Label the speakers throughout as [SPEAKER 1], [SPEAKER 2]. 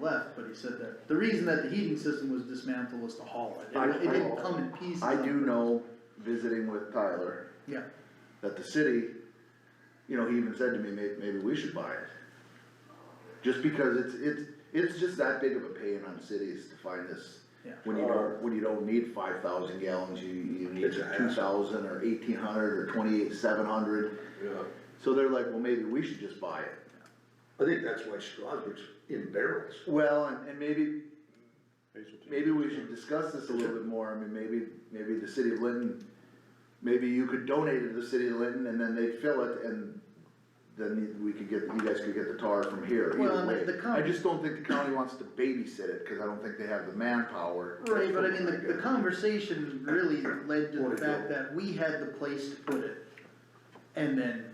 [SPEAKER 1] left, but he said that, the reason that the heating system was dismantled was to haul it,
[SPEAKER 2] I-
[SPEAKER 1] it it didn't come in pieces.
[SPEAKER 2] I do know, visiting with Tyler,
[SPEAKER 1] Yeah,
[SPEAKER 2] that the city, you know, he even said to me, may, maybe we should buy it. Just because it's, it's, it's just that big of a pain on cities to find this.
[SPEAKER 1] Yeah.
[SPEAKER 2] When you don't, when you don't need five thousand gallons, you, you need
[SPEAKER 3] It's a
[SPEAKER 2] two thousand or eighteen hundred or twenty-eight, seven hundred.
[SPEAKER 3] Yeah,
[SPEAKER 2] So they're like, well, maybe we should just buy it.
[SPEAKER 3] I think that's why Strasburg's in barrels.
[SPEAKER 2] Well, and, and maybe, maybe we should discuss this a little bit more, I mean, maybe, maybe the city of Linton, maybe you could donate it to the city of Linton, and then they'd fill it, and then we could get, you guys could get the tar from here,
[SPEAKER 1] Well,
[SPEAKER 2] either
[SPEAKER 1] and
[SPEAKER 2] way.
[SPEAKER 1] the county-
[SPEAKER 2] I just don't think the county wants to babysit it, cause I don't think they have the manpower.
[SPEAKER 1] right, but I mean, the, the conversation really led to the fact that we had the place to put it. And then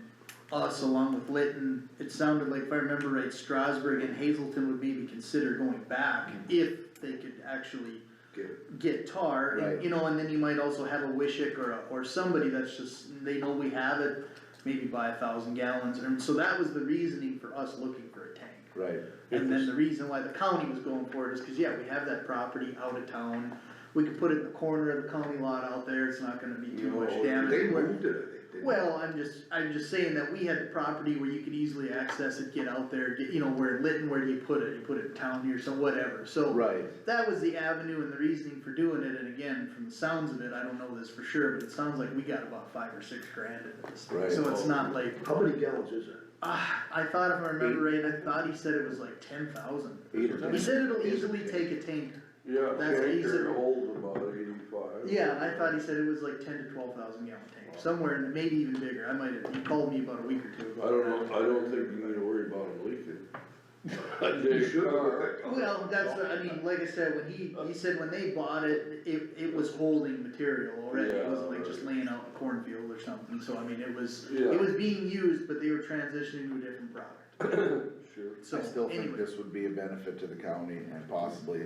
[SPEAKER 1] us along with Litton, it sounded like, if I remember right, Strasburg and Hazelton would maybe consider going back if they could actually
[SPEAKER 3] Get it.
[SPEAKER 1] get tar, and,
[SPEAKER 2] Right.
[SPEAKER 1] you know, and then you might also have a Wishick or, a- or somebody that's just, they know we have it, maybe buy a thousand gallons, and so that was the reasoning for us looking for a tank.
[SPEAKER 2] Right.
[SPEAKER 1] And then the reason why the county was going for it is cause yeah, we have that property out of town, we could put it in the corner of the county lot out there, it's not gonna be too
[SPEAKER 3] You know,
[SPEAKER 1] much damage.
[SPEAKER 3] They
[SPEAKER 1] We're-
[SPEAKER 3] moved it, I think. didn't they?
[SPEAKER 1] well, I'm just, I'm just saying that we had the property where you could easily access it, get out there, get, you know, where Litton, where do you put it, you put it in town here, so whatever, so.
[SPEAKER 2] Right.
[SPEAKER 1] That was the avenue and the reasoning for doing it, and again, from the sounds of it, I don't know this for sure, but it sounds like we got about five or six grand into this thing,
[SPEAKER 2] Right.
[SPEAKER 1] so it's not like,
[SPEAKER 3] How many gallons is it?
[SPEAKER 1] ah, I thought if I remember right, I thought he said it was like ten thousand.
[SPEAKER 2] Eight or
[SPEAKER 1] He
[SPEAKER 2] ten.
[SPEAKER 1] said it'll easily take a tank,
[SPEAKER 4] Yeah,
[SPEAKER 1] That's
[SPEAKER 4] tanker
[SPEAKER 1] easy.
[SPEAKER 4] holds about eighty-five.
[SPEAKER 1] yeah, I thought he said it was like ten to twelve thousand gallon tank, somewhere, in- maybe even bigger, I might have, he called me about a week or two ago.
[SPEAKER 4] I don't know, I don't think you need to worry about them leaking.
[SPEAKER 3] You
[SPEAKER 4] They
[SPEAKER 3] should have
[SPEAKER 4] are.
[SPEAKER 3] looked at-
[SPEAKER 1] Well, that's, what- I mean, like I said, when he, he said when they bought it, it, it was holding material already, it wasn't like just laying out in a cornfield or something, so I mean, it was,
[SPEAKER 4] Yeah.
[SPEAKER 1] it was being used, but they were transitioning to a different product,
[SPEAKER 4] Sure.
[SPEAKER 1] so
[SPEAKER 5] I still think
[SPEAKER 1] anyway.
[SPEAKER 5] this would be a benefit to the county and possibly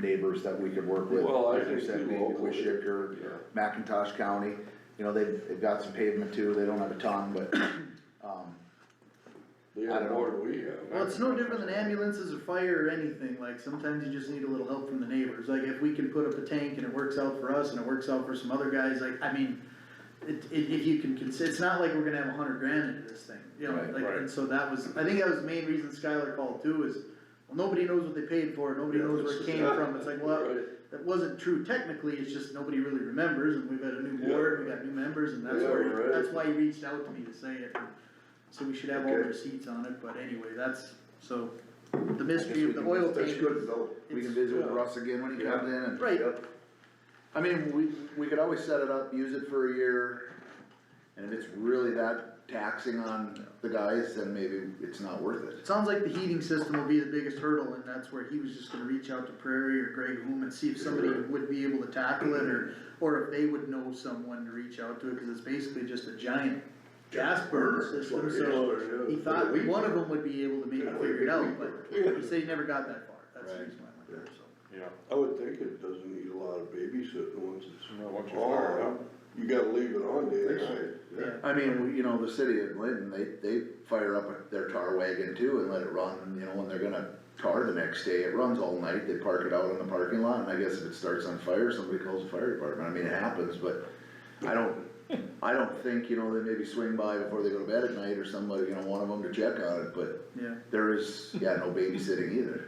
[SPEAKER 5] neighbors that we could work with.
[SPEAKER 4] Well, I
[SPEAKER 5] Like you
[SPEAKER 4] think
[SPEAKER 5] said,
[SPEAKER 4] too,
[SPEAKER 5] maybe
[SPEAKER 4] locally.
[SPEAKER 5] Wishick or
[SPEAKER 4] Yeah.
[SPEAKER 5] McIntosh County, you know, they've, they've got some pavement too, they don't have a ton, but, um,
[SPEAKER 4] They
[SPEAKER 5] I
[SPEAKER 4] have
[SPEAKER 5] don't
[SPEAKER 4] more
[SPEAKER 5] know.
[SPEAKER 4] than we have.
[SPEAKER 1] Well, it's no different than ambulances or fire or anything, like, sometimes you just need a little help from the neighbors, like, if we can put up a tank and it works out for us and it works out for some other guys, like, I mean, it, it, if you can consider, it's not like we're gonna have a hundred grand into this thing, you know,
[SPEAKER 5] Right,
[SPEAKER 1] like,
[SPEAKER 3] right.
[SPEAKER 1] and so that was, I think that was the main reason Skylar called too, is, well, nobody knows what they paid for, it. nobody
[SPEAKER 3] Yeah,
[SPEAKER 1] knows where it
[SPEAKER 3] it's-
[SPEAKER 1] came from, it's like, well,
[SPEAKER 4] Right.
[SPEAKER 1] that wasn't true technically, it's just nobody really remembers, and we've got a new
[SPEAKER 4] Yeah.
[SPEAKER 1] board, we got new members, and that's
[SPEAKER 4] Yeah,
[SPEAKER 1] where,
[SPEAKER 4] right.
[SPEAKER 1] that's why he reached out to me to say it. So we should have all the
[SPEAKER 3] Okay.
[SPEAKER 1] receipts on it, but anyway, that's, so, the mystery
[SPEAKER 5] we
[SPEAKER 1] of the
[SPEAKER 5] can-
[SPEAKER 1] oil
[SPEAKER 3] That's
[SPEAKER 1] tank.
[SPEAKER 3] good though.
[SPEAKER 5] we can
[SPEAKER 1] it's-
[SPEAKER 5] visit with Russ again when he
[SPEAKER 3] Yeah.
[SPEAKER 5] comes in and.
[SPEAKER 1] Right,
[SPEAKER 2] I mean, we, we could always set it up, use it for a year, and if it's really that taxing on the guys, then maybe it's not worth it.
[SPEAKER 1] it sounds like the heating system will be the biggest hurdle, and that's where he was just gonna reach out to Prairie or Greg Hume and see if somebody would be able to tackle it, or, or if they would know someone to reach out to, cause it's basically just a giant gas burner
[SPEAKER 3] That's
[SPEAKER 1] system,
[SPEAKER 3] what it is.
[SPEAKER 1] so. He
[SPEAKER 4] Yeah.
[SPEAKER 1] thought one of them would be able to maybe
[SPEAKER 3] Yeah,
[SPEAKER 1] figure it
[SPEAKER 3] we-
[SPEAKER 1] out,
[SPEAKER 3] we-
[SPEAKER 1] but
[SPEAKER 4] we-
[SPEAKER 1] he said he never got that far, that's the reason why I went there, so.
[SPEAKER 4] I would think it doesn't need a lot of babysitting once
[SPEAKER 6] No, once
[SPEAKER 4] it's
[SPEAKER 6] you're fired
[SPEAKER 4] on. You gotta leave it on day and night.
[SPEAKER 1] Yeah.
[SPEAKER 2] I mean, you know, the city of Linton, they, they fire up their tar wagon too and let it run, you know, when they're gonna tar the next day, it runs all night, they park it out in the parking lot, and I guess if it starts on fire, somebody calls the fire department, I mean, it happens, but I don't, I don't think, you know, they maybe swing by before they go to bed at night or somebody, you know, one of them to check on it, but
[SPEAKER 1] Yeah,
[SPEAKER 2] there is, yeah, no babysitting either.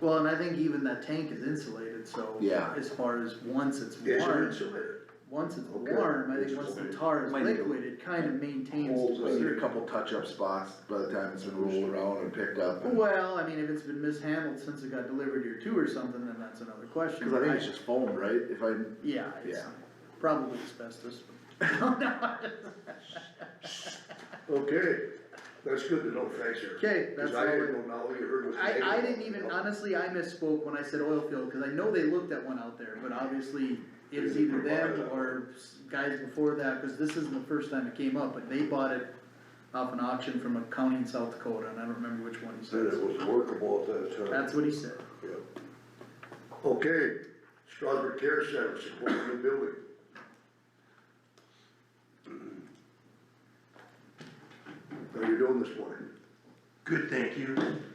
[SPEAKER 1] well, and I think even that tank is insulated, so.
[SPEAKER 2] Yeah.
[SPEAKER 1] As far as once it's
[SPEAKER 3] Yes, you're
[SPEAKER 1] warm,
[SPEAKER 3] insulated.
[SPEAKER 1] once it's
[SPEAKER 3] Okay.
[SPEAKER 1] warm, I think once the tar is
[SPEAKER 2] Might need to-
[SPEAKER 1] liquid, it kind of maintains.
[SPEAKER 4] Holds
[SPEAKER 1] to a
[SPEAKER 4] it.
[SPEAKER 2] There
[SPEAKER 1] certain-
[SPEAKER 2] are a couple touch-up spots by the time it's been rolled around and picked up, and-
[SPEAKER 1] Well, I mean, if it's been mishandled since it got delivered here too or something, then that's another question.
[SPEAKER 2] cause I think it's just foam, right, if I,
[SPEAKER 1] Yeah, it's
[SPEAKER 2] Yeah.
[SPEAKER 1] probably asbestos.
[SPEAKER 3] Okay, that's good to know, thanks, Eric.
[SPEAKER 1] Okay, that's
[SPEAKER 3] Cause I
[SPEAKER 1] all I-
[SPEAKER 3] didn't know now you heard what. the neighbor-
[SPEAKER 1] I, I didn't even, honestly, I misspoke when I said oil field, cause I know they looked at one out there, but obviously it was either them or s- guys before that, cause this isn't the first time it came up, but they bought it off an auction from a county in South Dakota, and I don't remember which one he
[SPEAKER 4] Said it
[SPEAKER 1] said.
[SPEAKER 4] was workable at that time.
[SPEAKER 1] That's what he said.
[SPEAKER 4] Yeah.
[SPEAKER 3] Okay, Strasburg Care Center, support a new building. How you doing this morning?
[SPEAKER 7] Good, thank you.